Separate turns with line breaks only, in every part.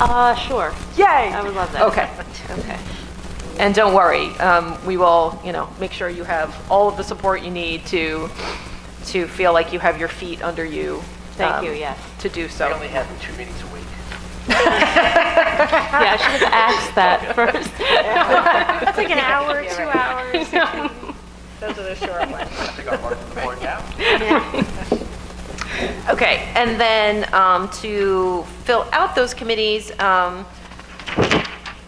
Uh, sure.
Yay!
I would love that.
Okay.
Okay.
And don't worry, um, we will, you know, make sure you have all of the support you need to, to feel like you have your feet under you.
Thank
um,
you, yes.
To do
We
so.
only have two meetings a week.
Yeah, I should have asked that first.
That's like an hour, two hours. Those are the short ones.
I think I'm running the board now.
Okay, and then um, to fill out those committees, um,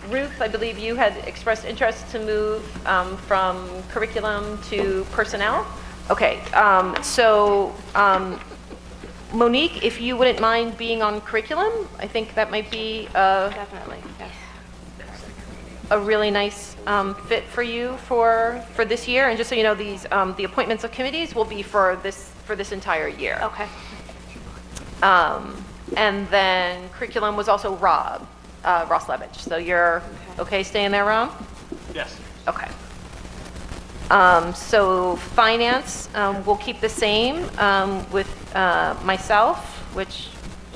Ruth, I believe you had expressed interest to move um, from curriculum to personnel? Okay, um, so um, Monique, if you wouldn't mind being on curriculum, I think that might be a
Definitely, yes.
a really nice um, fit for you for, for this year. And just so you know, these, um, the appointments of committees will be for this, for this entire year.
Okay.
Um, And then curriculum was also Rob, uh, Ross Levitch. So you're okay staying there, Rob?
Yes.
Okay. Um, So finance, um, we'll keep the same um, with uh, myself, which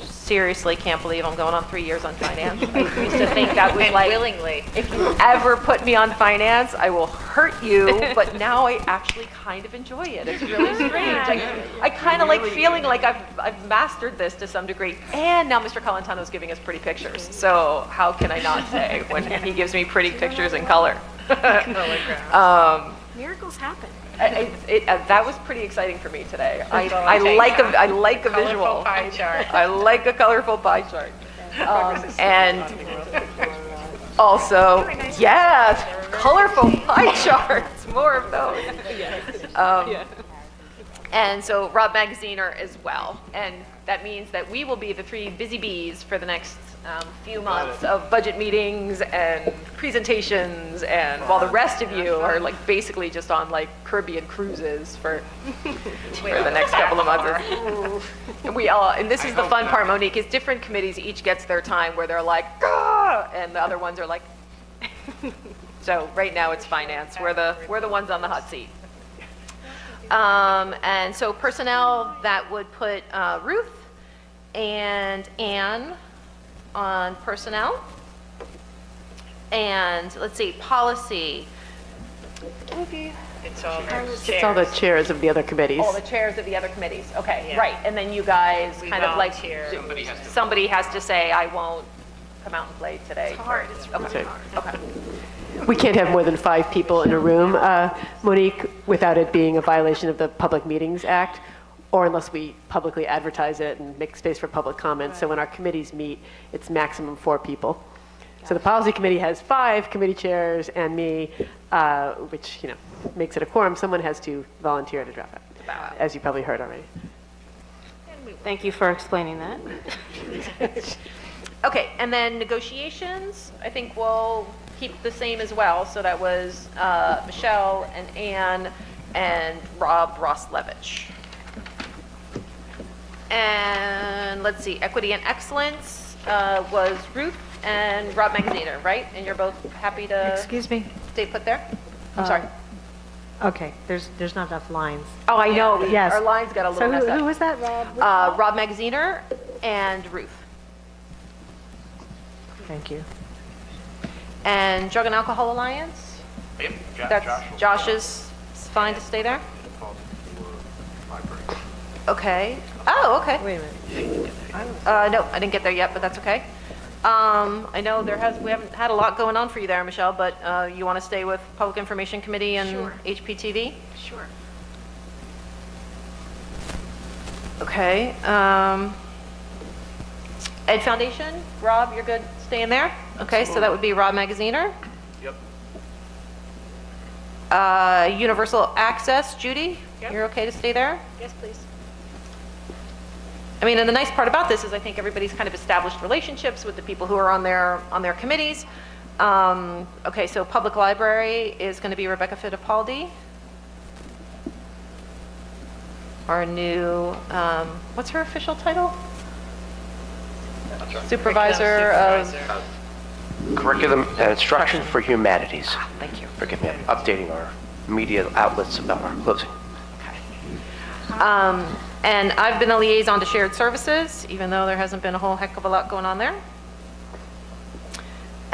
seriously can't believe I'm going on three years on finance. I used to think that was like.
Willingly.
If you ever put me on finance, I will hurt you, but now I actually kind of enjoy it. It's really strange. I, I kind of like feeling like I've, I've mastered this to some degree. And now Mr. Colantano's giving us pretty pictures. So how can I not say when he gives me pretty pictures in color?
Miracles happen.
I- I- it- uh, That was pretty exciting for me today. I,
That's all
I
I'm saying.
like, a- I like a visual.
Colorful pie chart.
I like a colorful pie chart. Um, And also, yeah, colorful pie charts, more of those. Um, And so Rob Magaziner as well. And that means that we will be the three busy bees for the next um, few months of budget meetings and presentations and while the rest of you are like basically just on like Caribbean cruises for, for the next couple of months. And We all, and this is the fun part, Monique, is different committees each gets their time where they're like, "Gah!" and the other ones are like, so right now it's finance, we're the, we're the ones on the hot seat. Um, and so personnel, that would put uh, Ruth and Anne on personnel. And let's see, policy,
It's all
It's all the chairs of the other committees.
all the chairs of the other committees, okay,
Yeah.
right, and then you guys
We
kind of like.
volunteer.
Somebody has to. say, I won't come out and play today.
hard, it's
Okay, okay.
We can't have more than five people in a room, uh, Monique, without it being a violation of the Public Meetings Act, or unless we publicly advertise it and make space for public comment. So when our committees meet, it's maximum four people. So the Policy Committee has five committee chairs and me, uh, which, you know, makes it a quorum. Someone has to volunteer to drop out, as you probably heard already.
Thank you for explaining that.
Okay, and then negotiations, I think we'll keep the same as well. So that was uh, Michelle and Anne and Rob Roslevich. And let's see, equity and excellence uh, was Ruth and Rob Magaziner, right? And you're both happy to
Excuse Uh, me?
stay put there? I'm sorry.
Okay, there's, there's not enough lines.
Oh, I know,
Yes.
our lines got a
So
little messed
who
up.
who was that, Rob?
Uh, Rob Magaziner and Ruth.
Thank you.
And Drug and Alcohol Alliance?
Yep, Jo- Josh will-
That's, Josh is it's fine to stay there?
called for library.
Okay. Oh, okay.
Wait a minute.
Uh, no, I didn't get there yet, but that's okay. Um, I know there has, we haven't had a lot going on for you there, Michelle, but, uh, you want to stay with Public Information Committee and HPTV?
Sure.
Okay, um, Ed Foundation, Rob, you're good staying there? Okay, so that would be Rob Magaziner.
Yep.
Uh, Universal Access, Judy, you're okay to stay there?
Yes, please.
I mean, and the nice part about this is I think everybody's kind of established relationships with the people who are on their, on their committees. Um, Okay, so Public Library is going to be Rebecca Fittipaldi. Our new, um, what's her official title? Supervisor of,
Curriculum and Instruction for Humanities.
Ah, thank you.
Forgive me, I'm updating our media outlets about our closing.
Um, And I've been a liaison to Shared Services, even though there hasn't been a whole heck of a lot going on there.